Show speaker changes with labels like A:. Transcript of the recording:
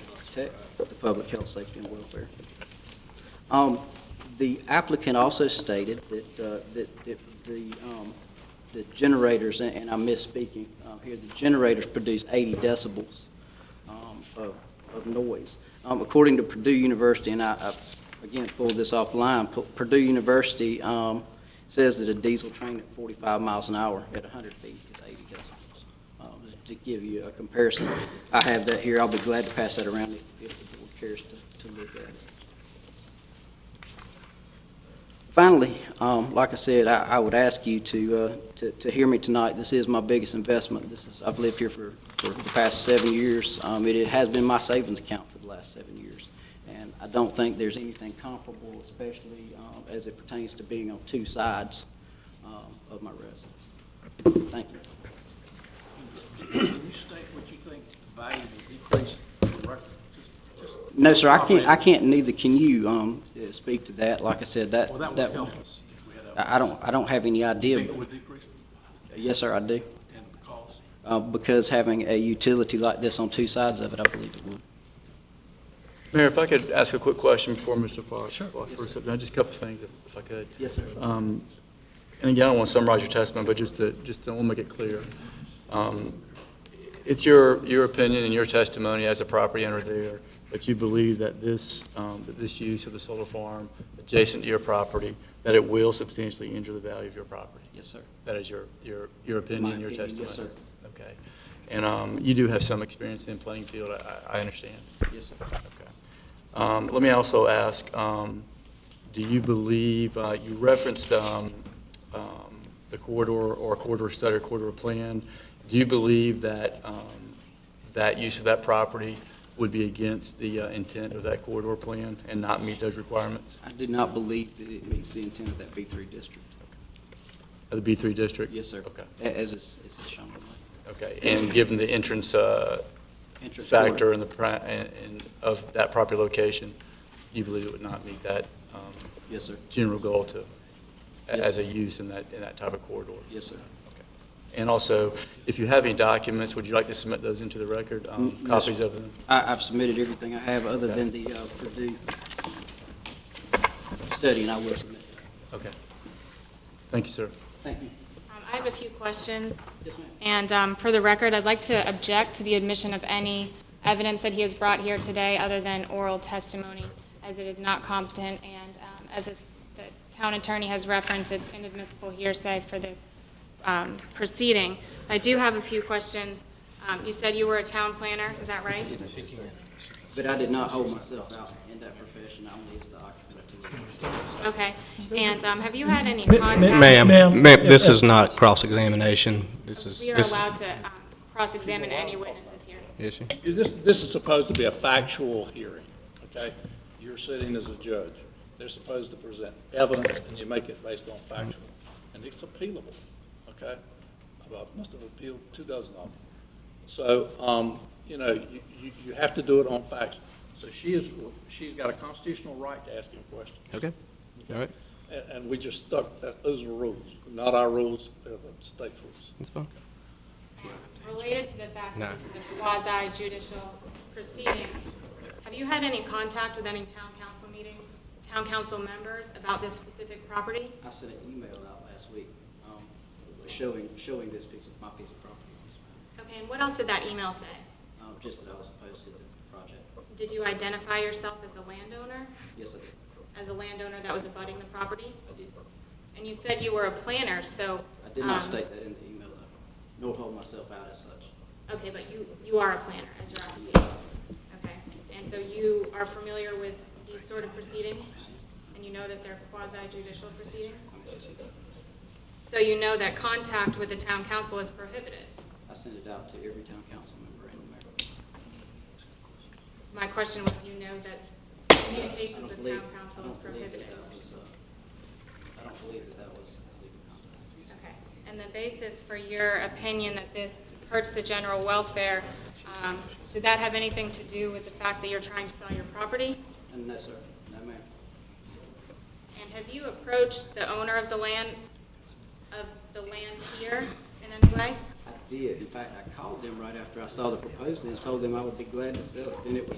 A: protect the public health, safety, and welfare. Um, The applicant also stated that, uh, that, that the, um, the generators, and- and I'm misspeaking um, here, the generators produce 80 decibels um, of, of noise. Um, According to Purdue University, and I, I, again, pulled this offline, Pu- Purdue University um, says that a diesel train at 45 miles an hour at 100 feet is 80 decibels. Um, just To give you a comparison, I have that here, I'll be glad to pass that around if, if the board cares to, to look at it. Finally, um, like I said, I, I would ask you to, uh, to, to hear me tonight. This is my biggest investment. This is, I've lived here for, for the past seven years. Um, it has been my savings account for the last seven years. And I don't think there's anything comparable, especially, um, as it pertains to being on two sides, um, of my residence. Thank you.
B: Can you state what you think the value of decrease in record? Just- just-
A: No, sir, I can't, I
B: Well,
A: can't neither can you, um, uh, speak to that. Like I said, that,
B: that
A: that,
B: would help us if we had that.
A: I, I don't, I don't have any
B: You
A: idea.
B: Think it would decrease
A: Yes, sir, I do.
B: and the cost?
A: uh, because having a utility like this on two sides of it, I believe it would.
C: Mayor, if I could ask a quick question before Mr. Fox.
B: Sure.
C: Fox first up. No, Just a couple of things, if if I could.
A: Yes, sir.
C: Um, And again, I don't want to summarize your testimony, but just to, just to want to make it clear. Um, It's your, your opinion and your testimony as a property owner there, that you believe that this, um, that this use of the solar farm adjacent to your property, that it will substantially injure the value of your property.
A: Yes, sir.
C: That is your, your, your opinion and your
A: My opinion,
C: testimony?
A: yes,
C: Okay. And um, you do have some experience in playing field, I, I I understand.
A: Yes, sir.
C: Okay. Um, Let me also ask, um, do you believe, uh, you referenced um, um, the corridor or corridor study, or corridor plan. Do you believe that um, that use of that property would be against the uh, intent of that corridor plan and not meet those requirements
A: I do not believe that it meets the intent of that B3 district.
C: of the B3 district?
A: Yes, sir.
C: Okay,
A: A- As is as is shown on
C: okay. And given the entrance uh,
A: my entrance. door.
C: factor and the, pri- and- and of that property location, you believe it would not meet that um,
A: Yes, sir.
C: general goal to,
A: Yes.
C: as a use in that, in that type of corridor.
A: Yes, sir.
C: And also, if you have any documents, would you like to submit those into the record, um,
A: Mm, yes,
C: copies of them?
A: I, I've submitted everything I have other
C: Okay.
A: than the uh, Purdue study, and I will submit. it.
C: Okay. Thank you, sir.
A: Thank you.
D: Um, I have a few questions,
A: Yes, ma'am.
D: and um, for the record, I'd like to object to the admission of any evidence that he has brought here today other than oral testimony, as it is not competent, and um, as is- the town attorney has referenced, it's inadmissible hearsay for this um, proceeding. I do have a few questions. Um, You said you were a town planner, is that right?
A: But I did not hold myself out in that profession. I'm the occupant of two.
D: Okay, and um, have you had any
E: Ma- ma-
D: contact?
F: Ma'am,
E: Ma'am,
F: ma'am, this
E: if-
F: is not cross-examination. This is,
D: We are
F: this
D: allowed to um, cross-examine any witnesses here.
F: is she?
B: This, this is supposed to be a factual hearing, okay? You're sitting as a judge. They're supposed to present evidence, and you make it based on factual. And it's appealable, okay? Well, I must have appealed two dozen of them. So, um, you know, you, you, you have to do it on facts. So she is, she's got a constitutional right to ask him questions.
F: Okay, all right,
B: And, and we just stuck, that, those are the rules, not our rules, they're the state rules.
F: that's fine.
D: Related to the fact
F: No.
D: that this is a quasi judicial proceeding, have you had any contact with any town council meeting, town council members about this specific property?
A: I sent an email out last week, um, showing, showing this piece of, my piece of property.
D: Okay, and what else did that email say?
A: Um, just that I was opposed to the project.
D: Did you identify yourself as a landowner,
A: Yes, I did.
D: as a landowner that was abutting the property?
A: I did.
D: And you said you were a planner, so.
A: I did not
D: um,
A: state that in the email, though, nor hold myself out as such.
D: Okay, but you, you are a planner as your occupation. Okay, and so you are familiar with these sort of proceedings? And you know that they're quasi judicial proceedings? So you know that contact with the town council is prohibited?
A: I sent it out to every town council member and mayor.
D: My question was, you know that communications
A: I
D: with
A: believe-
D: town council
A: I
D: is
A: don't believe that
D: prohibited?
A: that was, uh, I don't believe that that was legal contact.
D: Okay, and the basis for your opinion that this hurts the general welfare, um, did that have anything to do with the fact that you're trying to sell your property?
A: And no, sir, no, ma'am.
D: And have you approached the owner of the land, of the land here in any way?
A: I did, in fact, I called them right after I saw the proposal and told them I would be glad to sell it, then it was